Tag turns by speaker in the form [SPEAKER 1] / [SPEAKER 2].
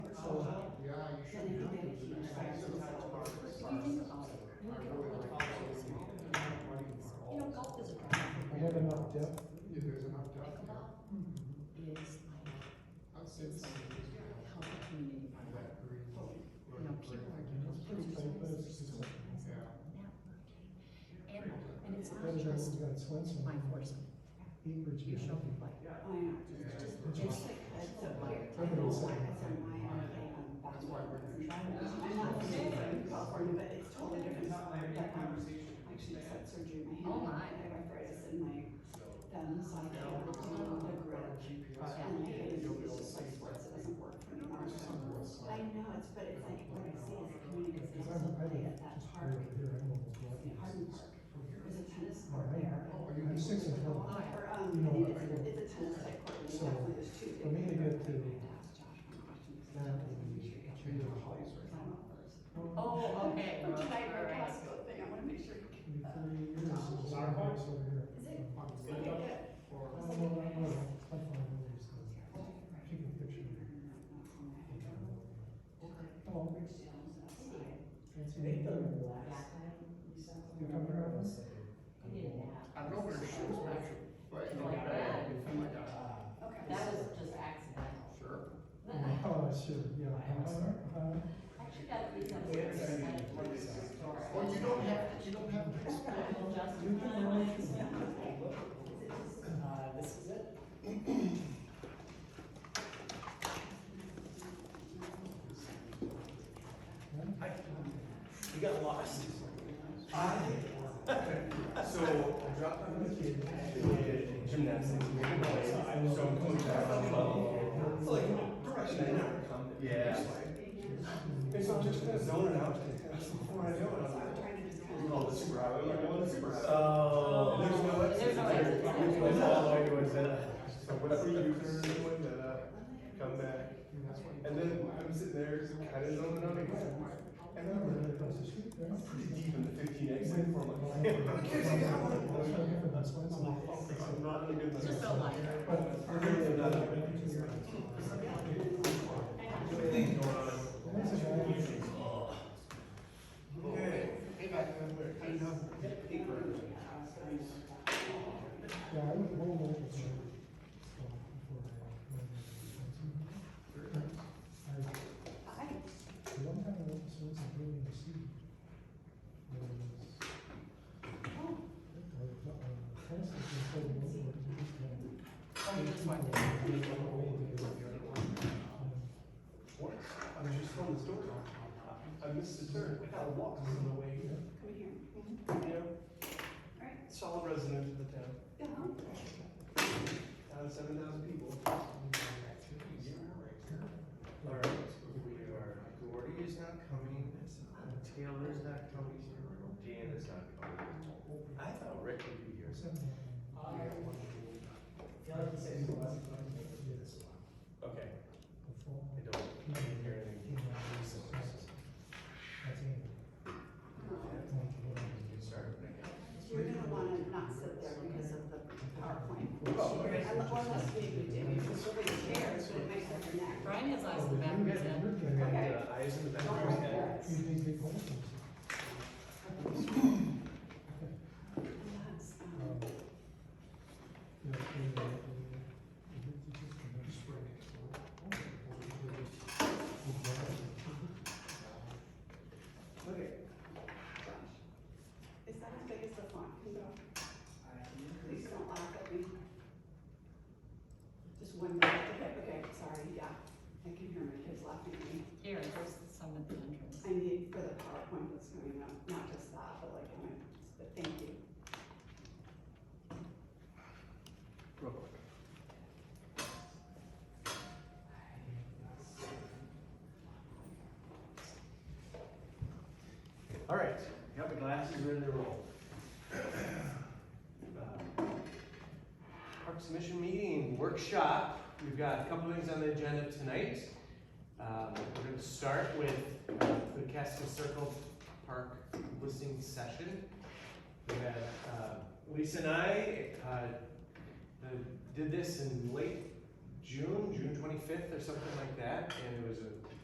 [SPEAKER 1] You know, golf is a
[SPEAKER 2] We have enough depth.
[SPEAKER 3] Yeah, there's enough depth there.
[SPEAKER 1] Pickleball is like,
[SPEAKER 3] I'd say
[SPEAKER 1] it's
[SPEAKER 3] something just
[SPEAKER 1] how the community,
[SPEAKER 3] on that green.
[SPEAKER 1] you know, people are doing
[SPEAKER 2] It's
[SPEAKER 1] those things.
[SPEAKER 2] like this. It's like-
[SPEAKER 1] And, and it's
[SPEAKER 2] Better
[SPEAKER 1] not
[SPEAKER 2] than
[SPEAKER 1] just
[SPEAKER 2] we got Swenson.
[SPEAKER 1] my enforcement,
[SPEAKER 2] He was-
[SPEAKER 1] you show me what. It's just, it's just like, so weird. I don't know why.
[SPEAKER 3] That's why we're.
[SPEAKER 4] I'm not saying from California, but it's totally different. But, um, I Actually, just had surgery in my hand.
[SPEAKER 1] Oh, my.
[SPEAKER 4] I have arthritis in my thumb, so I can't hold the grip. And my head is just like sports, it doesn't work for me. I know, it's, but it's like what I see is the community is
[SPEAKER 2] Because
[SPEAKER 4] also
[SPEAKER 2] I'm, I
[SPEAKER 4] play
[SPEAKER 2] didn't
[SPEAKER 4] at that
[SPEAKER 2] just play
[SPEAKER 4] park,
[SPEAKER 2] over here, I almost walked.
[SPEAKER 4] in Hardin Park. There's a tennis court
[SPEAKER 2] Alright.
[SPEAKER 4] there.
[SPEAKER 2] I'm six and
[SPEAKER 4] Or,
[SPEAKER 2] twelve.
[SPEAKER 1] Oh,
[SPEAKER 4] um,
[SPEAKER 2] You know,
[SPEAKER 4] it is,
[SPEAKER 2] I
[SPEAKER 4] it's
[SPEAKER 2] don't-
[SPEAKER 4] a tennis type court, and
[SPEAKER 2] So,
[SPEAKER 4] definitely there's two.
[SPEAKER 2] for me to get to
[SPEAKER 4] Ask Josh my questions.
[SPEAKER 2] that and
[SPEAKER 3] Change the holidays
[SPEAKER 4] Because I'm up first.
[SPEAKER 1] Oh, okay.
[SPEAKER 4] Or should I wear a
[SPEAKER 1] Alright.
[SPEAKER 4] Costco thing? I wanna make sure you can.
[SPEAKER 2] Three years is the same house over here.
[SPEAKER 1] Is it?
[SPEAKER 4] Okay, good.
[SPEAKER 2] Oh, no, no, no, it's my phone, I'm always good. She can picture me. Oh, it's an eight dollar glass. You come around?
[SPEAKER 3] I know where she was measured, but. you know,
[SPEAKER 1] Like that.
[SPEAKER 3] I'm like, ah,
[SPEAKER 4] Okay.
[SPEAKER 1] That was just accidental.
[SPEAKER 3] Sure.
[SPEAKER 2] Oh, sure, yeah. Uh-huh.
[SPEAKER 1] Actually, that reason I was just like, what is the story?
[SPEAKER 3] Well, you don't have, you don't have to explain.
[SPEAKER 1] Well, just-
[SPEAKER 2] You can arrange it.
[SPEAKER 5] Uh, this is it. You got lost.
[SPEAKER 6] So I dropped out of the kid, did gymnastics, made a noise, so I'm coming back from club. It's like, direction I never come. Yeah. And so I'm just kind of zoning out, that's what I do, and I'm like, oh, the super highway, I'm like, well, the super highway.
[SPEAKER 5] Oh.
[SPEAKER 6] There's no exit.
[SPEAKER 1] There's no exit.
[SPEAKER 6] It goes all the way to Wayzata. So whatever you turn, Wayzata, come back. And then I'm sitting there, kind of zoning out again. And then I'm
[SPEAKER 2] Right across the street there.
[SPEAKER 6] like, pretty deep in the fifteen exit
[SPEAKER 2] Wait
[SPEAKER 6] for
[SPEAKER 2] for
[SPEAKER 6] my.
[SPEAKER 2] it.
[SPEAKER 6] Who cares? I got
[SPEAKER 2] That's
[SPEAKER 6] one.
[SPEAKER 2] what I hear from this one.
[SPEAKER 6] I'm not in a good.
[SPEAKER 1] Just a lighter.
[SPEAKER 2] But
[SPEAKER 6] We're good for that. Everything going on.
[SPEAKER 2] That's a guy.
[SPEAKER 6] Okay.
[SPEAKER 2] Yeah, I would roll over to her, so, before I, uh, went into the fencing. I, the one time I went to Swenson Building to see, there was, uh, uh, tennis was just so low, it was just kind of-
[SPEAKER 1] Oh, this one.
[SPEAKER 2] They went away and they were- um,
[SPEAKER 6] What? I was just on the store. I missed the turn. I got lost on the way here.
[SPEAKER 4] Come here.
[SPEAKER 6] Yeah.
[SPEAKER 4] Alright.
[SPEAKER 6] Solid resident of the town.
[SPEAKER 4] Yeah.
[SPEAKER 6] Town of seven thousand people. Alright. We are, Gordy's not coming. Taylor's not coming. Dan is not coming. I thought Rick would be here.
[SPEAKER 2] seven, uh, yes,
[SPEAKER 6] Okay.
[SPEAKER 2] the fall,
[SPEAKER 6] I don't, I didn't hear anything.
[SPEAKER 2] you know, this is- that's it. Like, what I would do.
[SPEAKER 6] Sorry.
[SPEAKER 4] You're gonna wanna not sit there because of the PowerPoint.
[SPEAKER 6] Oh, okay.
[SPEAKER 4] I love, well, that's what you do, you just sit in chairs, but it might hurt your neck.
[SPEAKER 1] Brian has eyes
[SPEAKER 2] Oh,
[SPEAKER 1] in the back of
[SPEAKER 2] you're-
[SPEAKER 1] his head.
[SPEAKER 2] you're good.
[SPEAKER 6] And, uh, eyes in the back of your head.
[SPEAKER 2] You need big holes.
[SPEAKER 4] That's, um,
[SPEAKER 2] Um, yeah, they, uh, they- they just- they just bring it to work. They just- they just-
[SPEAKER 6] Okay.
[SPEAKER 4] Josh. Is that as big as the font can go? Please don't laugh at me. Just one minute, okay, okay, sorry, yeah, I can hear my kids laughing at me.
[SPEAKER 1] Here, there's some at the entrance.
[SPEAKER 4] I need for the PowerPoint that's going up, not just that, but like, I mean, but thank you.
[SPEAKER 6] Real quick. All right, got the glasses ready to roll. Uh, Parks Mission Meeting Workshop, we've got a couple things on the agenda tonight. Um, We're gonna start with uh, the Casco Circle Park listening session. We had uh, Lisa and I uh, uh, did this in late June, June twenty-fifth or something like that, and it was a